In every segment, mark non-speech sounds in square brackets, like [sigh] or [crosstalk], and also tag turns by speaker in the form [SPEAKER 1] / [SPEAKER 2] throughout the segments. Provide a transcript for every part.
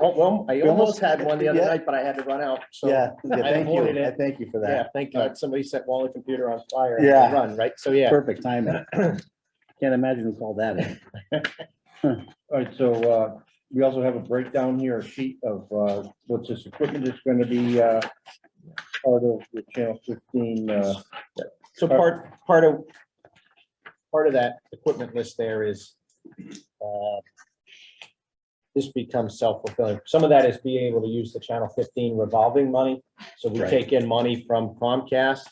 [SPEAKER 1] Oh, Well, I
[SPEAKER 2] We
[SPEAKER 1] almost
[SPEAKER 2] almost-
[SPEAKER 1] had one the other
[SPEAKER 2] yeah.
[SPEAKER 1] night, but I had to run out, so.
[SPEAKER 2] Yeah, yeah,
[SPEAKER 1] I
[SPEAKER 2] thank
[SPEAKER 1] avoided
[SPEAKER 2] you.
[SPEAKER 1] it.
[SPEAKER 2] I thank you for
[SPEAKER 1] Yeah,
[SPEAKER 2] that.
[SPEAKER 1] thank God somebody set Wally computer on fire. and
[SPEAKER 2] Yeah.
[SPEAKER 1] Run, right? So, yeah.
[SPEAKER 2] Perfect timing.
[SPEAKER 1] [laughs]
[SPEAKER 2] Can't imagine who called that in.
[SPEAKER 3] All right, so uh, we also have a breakdown here, a sheet of uh, what's this equipment that's going to be uh, part of the Channel 15. uh,
[SPEAKER 1] So part, part of, part of that equipment list there is, uh, this becomes self-fulfilling. Some of that is being able to use the Channel fifteen revolving money. So we
[SPEAKER 2] Right.
[SPEAKER 1] take in money from Comcast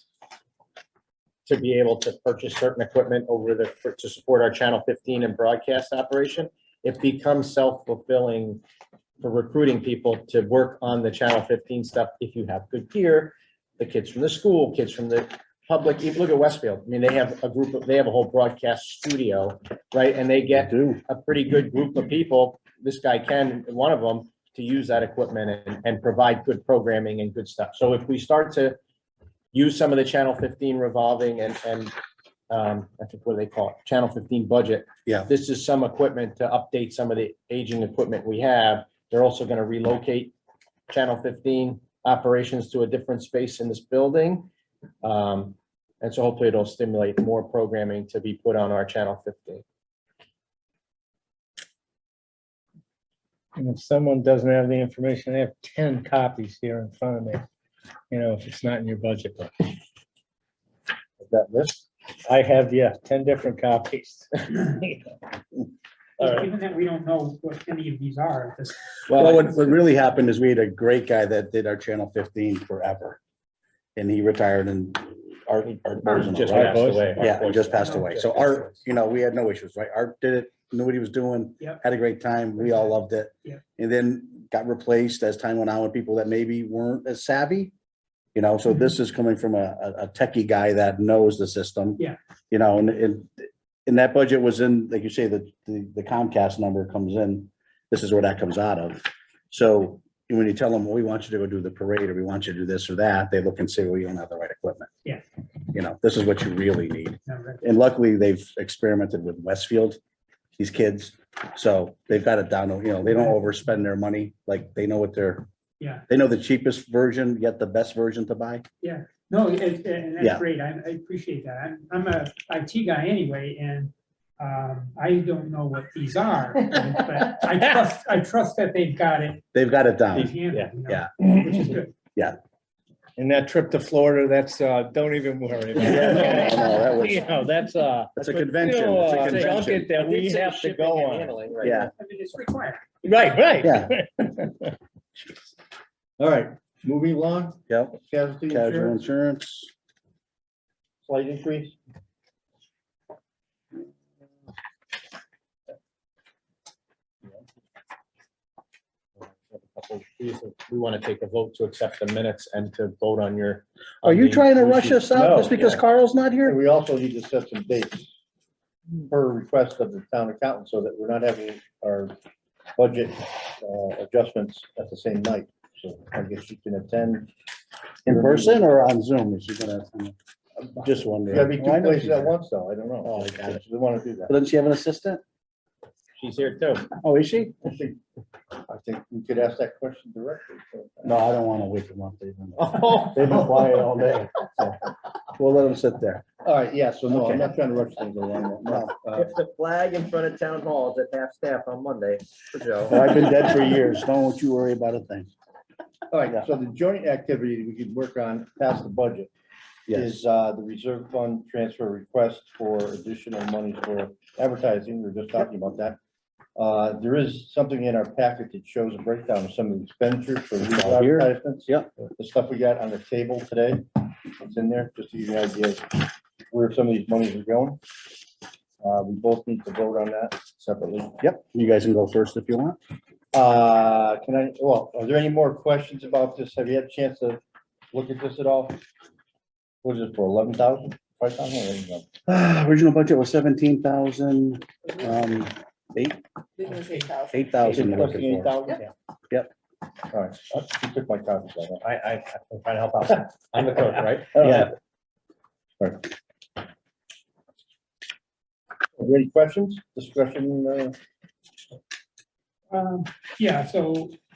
[SPEAKER 1] to be able to purchase certain equipment over the, for- to support our Channel fifteen and broadcast operation. It becomes self-fulfilling for recruiting people to work on the Channel fifteen stuff. If you have good gear, the kids from the school, kids from the public, even look at Westfield. I mean, they have a group of, they have a whole broadcast studio, right? And they get
[SPEAKER 2] Do.
[SPEAKER 1] a pretty good group of people, this guy Ken, one of them, to use that equipment and, and provide good programming and good stuff. So if we start to use some of the Channel fifteen revolving and, and, um, I think what do they call it, Channel fifteen budget.
[SPEAKER 2] Yeah.
[SPEAKER 1] This is some equipment to update some of the aging equipment we have. They're also gonna relocate Channel fifteen operations to a different space in this building. Um, and so hopefully it'll stimulate more programming to be put on our Channel fifteen.
[SPEAKER 4] And if someone doesn't have the information, they have ten copies here in front of me, you know, if it's not in your budget book.
[SPEAKER 3] That list,
[SPEAKER 4] I have, yeah, ten different copies. All right.
[SPEAKER 5] Even that we don't know what any of these are at this
[SPEAKER 2] Well, what, what really happened is we had a great guy that did our Channel fifteen forever. And he retired and Art, Art Borzon,
[SPEAKER 1] Just
[SPEAKER 2] right?
[SPEAKER 1] passed away.
[SPEAKER 4] [laughs]
[SPEAKER 2] Yeah, and just passed away. So Art,
[SPEAKER 1] Just-
[SPEAKER 2] you know, we had no issues, right? Art did it, knew what he was doing.
[SPEAKER 5] Yep.
[SPEAKER 2] Had a great time. We all loved it.
[SPEAKER 5] Yep.
[SPEAKER 2] And then got replaced as time went on with people that maybe weren't as savvy. You know,
[SPEAKER 5] Mm-hmm.
[SPEAKER 2] so this is coming from a, a a techie guy that knows the system.
[SPEAKER 5] Yeah.
[SPEAKER 2] You know, and, and, and that budget was in, like you say, the, the the Comcast number comes in. This is where that comes out of. So when you tell them, well, we want you to go do the parade, or we want you to do this or that, they look and say, well, you don't have the right equipment.
[SPEAKER 5] Yeah.
[SPEAKER 2] You know, this is what you really need
[SPEAKER 5] number.
[SPEAKER 2] and luckily they've experimented with Westfield, these kids. So they've got it down, you know, they don't overspend their money, like they know what they're,
[SPEAKER 5] Yeah,
[SPEAKER 2] they know the cheapest version, yet the best version to buy.
[SPEAKER 5] no, it- it- and
[SPEAKER 2] Yeah.
[SPEAKER 5] that's great. I, I appreciate that. I'm, I'm a IT guy anyway, and um, I don't know what these are. But I trust, I trust that they've got it
[SPEAKER 2] They've got it
[SPEAKER 5] in
[SPEAKER 2] down.
[SPEAKER 5] hand, you know,
[SPEAKER 2] yeah.
[SPEAKER 5] which is good.
[SPEAKER 4] And that trip to Florida, that's, uh, don't even worry.
[SPEAKER 1] [laughs]
[SPEAKER 4] about
[SPEAKER 2] Yeah,
[SPEAKER 4] it.
[SPEAKER 2] no, no, that was-
[SPEAKER 4] You know, that's, uh.
[SPEAKER 2] That's a convention, it's a
[SPEAKER 4] No, uh,
[SPEAKER 2] convention.
[SPEAKER 4] junket That we have to go on.
[SPEAKER 2] Yeah,
[SPEAKER 5] I mean, it's required.
[SPEAKER 4] Right, right.
[SPEAKER 2] Yeah.
[SPEAKER 3] all right, moving along,
[SPEAKER 2] yep,
[SPEAKER 3] casualty
[SPEAKER 2] casual
[SPEAKER 3] insurance,
[SPEAKER 2] insurance.
[SPEAKER 3] slight increase.
[SPEAKER 1] We want to take a vote to accept the minutes and to vote on your.
[SPEAKER 2] Are you trying to rush us out
[SPEAKER 3] No,
[SPEAKER 2] just because
[SPEAKER 3] yeah.
[SPEAKER 2] Carl's not
[SPEAKER 3] And
[SPEAKER 2] here?
[SPEAKER 3] we also need to set some dates per request of the town accountant, so that we're not having our budget uh, adjustments at the same night. So I guess you can attend.
[SPEAKER 2] In person or on Zoom? Is she gonna, just wondering.
[SPEAKER 3] Gotta be
[SPEAKER 2] Why
[SPEAKER 3] two
[SPEAKER 2] not?
[SPEAKER 3] places at once, though, I don't know.
[SPEAKER 2] Oh, I got it.
[SPEAKER 3] They wanna do that.
[SPEAKER 2] Doesn't she have an assistant?
[SPEAKER 1] She's here too.
[SPEAKER 2] Oh, is she?
[SPEAKER 3] I think, I think we could ask that question directly. so.
[SPEAKER 2] No, I don't wanna wake them up. They've
[SPEAKER 3] [laughs]
[SPEAKER 2] been-
[SPEAKER 3] They've been quiet all day.
[SPEAKER 2] We'll let them sit there.
[SPEAKER 3] All right, yeah, so no, I'm not trying to rush things along.
[SPEAKER 2] No. [laughs]
[SPEAKER 3] Uh,
[SPEAKER 1] If the flag in front of town hall is at half staff on Monday for
[SPEAKER 2] Well,
[SPEAKER 1] Joe.
[SPEAKER 2] I've been dead for years. Don't you worry about a thing.
[SPEAKER 3] All right, so the joint activity we could work on past the budget
[SPEAKER 2] Yes,
[SPEAKER 3] is uh, the reserve fund transfer request for additional money for advertising. We were just talking about that. Uh, There is something in our packet that shows a breakdown of some of the expenditures for these
[SPEAKER 2] all here.
[SPEAKER 3] advertisements.
[SPEAKER 2] Yep.
[SPEAKER 3] The stuff we got on the table today, it's in there, just to give you an idea of where some of these monies are going. Uh, We both need to vote on that separately.
[SPEAKER 2] yep. You guys can go first if you want. [sighs]
[SPEAKER 3] Uh, can I, well, are there any more questions about this? Have you had a chance to look at this at all? What is it for, eleven thousand, five thousand?
[SPEAKER 2] Original budget was seventeen thousand, um, eight, eight thousand you're looking
[SPEAKER 3] Eight
[SPEAKER 2] for.
[SPEAKER 3] thousand?
[SPEAKER 2] Yep.
[SPEAKER 3] All right, I took my copies. I don't-
[SPEAKER 1] I, I, I'm trying to help out. I'm the coach, right?
[SPEAKER 3] I don't
[SPEAKER 2] Yeah.
[SPEAKER 3] have- All right. Are there Any questions, discussion? uh,
[SPEAKER 5] Um, Yeah, so